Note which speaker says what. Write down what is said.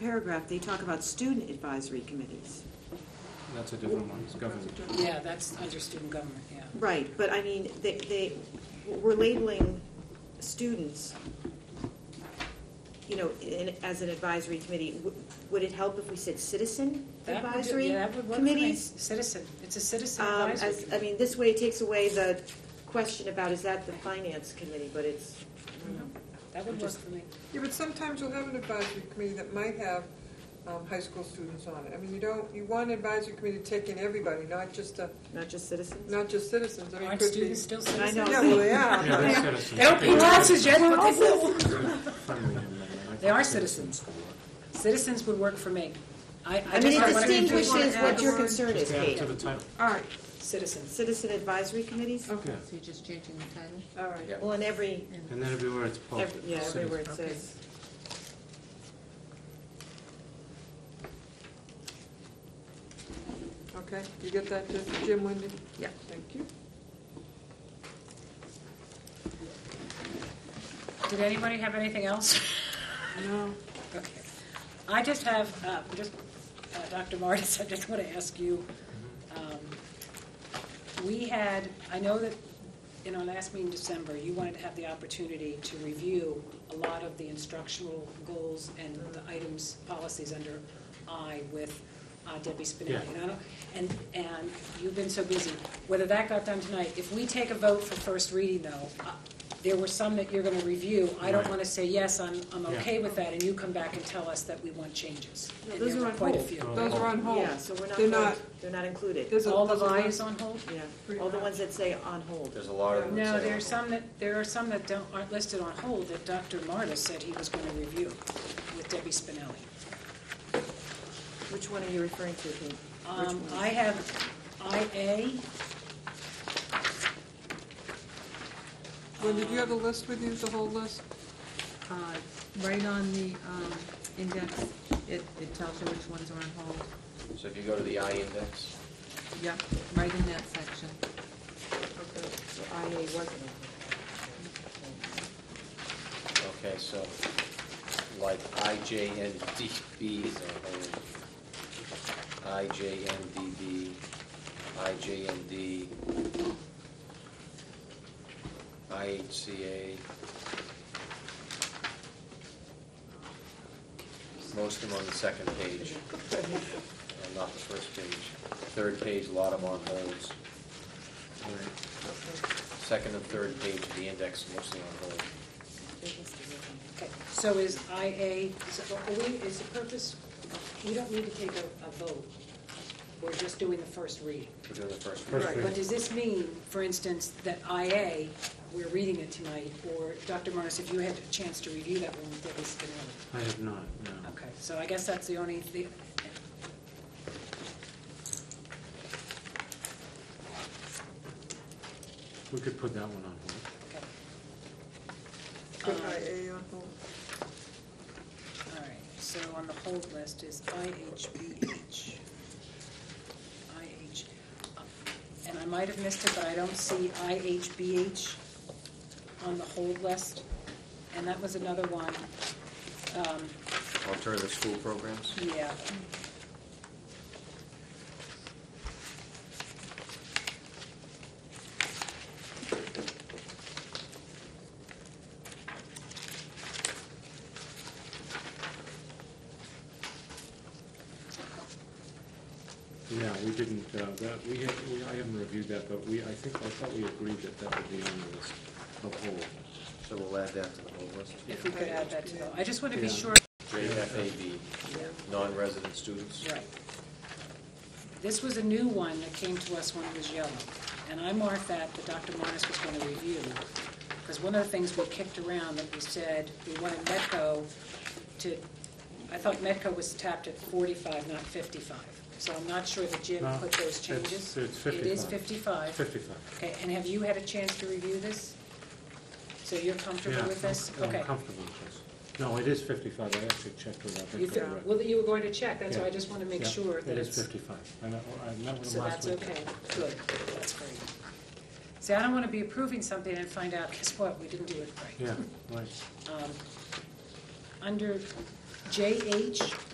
Speaker 1: paragraph, they talk about student advisory committees.
Speaker 2: That's a different one, it's government.
Speaker 3: Yeah, that's under student government, yeah.
Speaker 1: Right, but I mean, they, they, we're labeling students, you know, in, as an advisory committee. W- Would it help if we said citizen
Speaker 3: That would do-
Speaker 1: advisory
Speaker 3: yeah, that would work for me.
Speaker 1: committees?
Speaker 3: Citizen, it's a citizen
Speaker 1: Um,
Speaker 3: advisory
Speaker 1: as, I
Speaker 3: committee.
Speaker 1: mean, this way it takes away the question about is that the finance committee, but it's, I don't know.
Speaker 3: That would work for me.
Speaker 4: Yeah, but sometimes you'll have an advisory committee that might have um, high school students on it. I mean, you don't, you want an advisory committee to take in everybody, not just, uh,
Speaker 1: not just citizens?
Speaker 4: not just citizens. I mean, it
Speaker 3: Aren't
Speaker 4: could be-
Speaker 3: students still
Speaker 1: I
Speaker 3: citizens?
Speaker 1: know.
Speaker 4: Yeah, well, they
Speaker 2: Yeah,
Speaker 4: are.
Speaker 2: they're citizens.
Speaker 3: They don't pay taxes yet, but they will.
Speaker 2: Friendly amendment.
Speaker 3: They are citizens. Citizens would work for me. I, I
Speaker 1: I mean,
Speaker 3: just
Speaker 1: it
Speaker 3: don't want to
Speaker 4: distinguishes
Speaker 3: confuse
Speaker 1: distinguishes what
Speaker 4: add
Speaker 1: your
Speaker 4: the word-
Speaker 1: concern is,
Speaker 2: Just add
Speaker 1: Kate.
Speaker 2: to the title.
Speaker 4: All right,
Speaker 3: citizens.
Speaker 1: Citizen advisory committees?
Speaker 2: Okay,
Speaker 5: So you're just changing the title?
Speaker 4: all right.
Speaker 1: Well, in every,
Speaker 2: and then everywhere it's posted.
Speaker 1: every- yeah, every
Speaker 2: citizens.
Speaker 1: word
Speaker 5: Okay.
Speaker 1: says.
Speaker 4: Okay, you get that, Jim- Jim, Wendy?
Speaker 5: Yeah.
Speaker 4: Thank you.
Speaker 3: Did anybody have anything else?
Speaker 4: No.
Speaker 3: Okay. I just have, uh, just, uh, Dr. Martis, I just want to ask you, um, we had, I know that in our last meeting in December, you wanted to have the opportunity to review a lot of the instructional goals and the items, policies under I with uh, Debbie Spinelli.
Speaker 2: Yeah.
Speaker 3: And I don't- And, and you've been so busy. Whether that got done tonight, if we take a vote for first reading though, uh, there were some that you're going to review. I don't
Speaker 2: Right.
Speaker 3: want to say, yes, I'm, I'm
Speaker 2: Yeah.
Speaker 3: okay with that, and you come back and tell us that we want changes.
Speaker 1: No,
Speaker 3: And
Speaker 1: those
Speaker 3: there
Speaker 1: are
Speaker 3: were
Speaker 1: on
Speaker 3: quite a
Speaker 1: hold.
Speaker 3: few.
Speaker 4: Those are on hold.
Speaker 1: Yeah, so we're not,
Speaker 4: They're
Speaker 1: going-
Speaker 4: not-
Speaker 1: they're not included.
Speaker 4: There's a-
Speaker 3: All the
Speaker 4: there's a lot-
Speaker 3: lie is on hold?
Speaker 1: Yeah,
Speaker 4: Pretty
Speaker 1: all the
Speaker 4: much.
Speaker 1: ones that say on hold.
Speaker 6: There's a lot of them. that
Speaker 3: No,
Speaker 6: say-
Speaker 3: there are some that, there are some that don't, aren't listed on hold that Dr. Marta said he was going to review with Debbie Spinelli.
Speaker 1: Which one are you referring to, Pete? Which
Speaker 3: Um,
Speaker 1: one?
Speaker 3: I have IA,
Speaker 4: Wendy, do you have the list with you, the whole list?
Speaker 5: Uh, Right on the um, index, it, it tells you which ones are on hold.
Speaker 6: So if you go to the I index,
Speaker 5: Yep, right in that section.
Speaker 4: Okay.
Speaker 1: So IA wasn't on hold.
Speaker 6: okay, so like IJNDB is on hold. IJNDB, IJND, IHCA. Most of them on the second page, uh, not the first page. Third page, a lot of them on holds. Second and third page of the index mostly on hold.
Speaker 1: It must have been on
Speaker 3: okay, so is IA, so are we, is the purpose, we don't need to take a, a vote. We're just doing the first reading.
Speaker 6: We're doing the first
Speaker 2: First
Speaker 6: reading.
Speaker 3: Right, but does this mean, for instance, that IA, we're reading it tonight, or Dr. Martis, if you had a chance to review that one with Debbie Spinelli?
Speaker 2: I have not, no.
Speaker 3: Okay, so I guess that's the only, the,
Speaker 2: We could put that one on hold.
Speaker 3: okay,
Speaker 1: Uh-huh.
Speaker 4: Put IA on hold.
Speaker 3: all right. So on the hold list is IHBH. IH, uh, and I might have missed it, but I don't see IHBH on the hold list. And that was another one, um,
Speaker 6: Alternative school programs?
Speaker 3: yeah.
Speaker 2: Yeah, we didn't, uh, that, we, had- we- I haven't reviewed that, but we, I think, I thought we agreed that that would be on the list of hold.
Speaker 6: So we'll add that to the whole list.
Speaker 3: If we could add that to the, I just want to be
Speaker 2: Yeah.
Speaker 3: sure,
Speaker 6: Grade FAB,
Speaker 3: yeah,
Speaker 6: non-resident students.
Speaker 3: right. This was a new one that came to us when it was yellow, and I marked that that Dr. Morris was going to review, because one of the things we kicked around that we said, we wanted Metco to, I thought Metco was tapped at forty-five, not fifty-five. So I'm not sure that Jim
Speaker 2: No,
Speaker 3: put those
Speaker 2: it's-
Speaker 3: changes.
Speaker 2: it's
Speaker 3: It is
Speaker 2: 55.
Speaker 3: fifty-five.
Speaker 2: Fifty-five.
Speaker 3: Okay, and have you had a chance to review this? So you're comfortable
Speaker 2: Yeah,
Speaker 3: with this?
Speaker 2: I'm-
Speaker 3: Okay.
Speaker 2: I'm comfortable with this. No, it is fifty-five, I actually checked with that.
Speaker 3: You
Speaker 2: That's
Speaker 3: think,
Speaker 2: correct.
Speaker 3: well, you were going to check, that's why I
Speaker 2: Yeah.
Speaker 3: just want to make
Speaker 2: Yeah,
Speaker 3: sure that
Speaker 2: It is
Speaker 3: it's,
Speaker 2: fifty-five. I know, I met with
Speaker 3: so
Speaker 2: him last
Speaker 3: that's
Speaker 2: week.
Speaker 3: okay, good, that's great. See, I don't want to be approving something and find out, guess what, we didn't do it right.
Speaker 2: Yeah, right.
Speaker 3: Um, Under JH,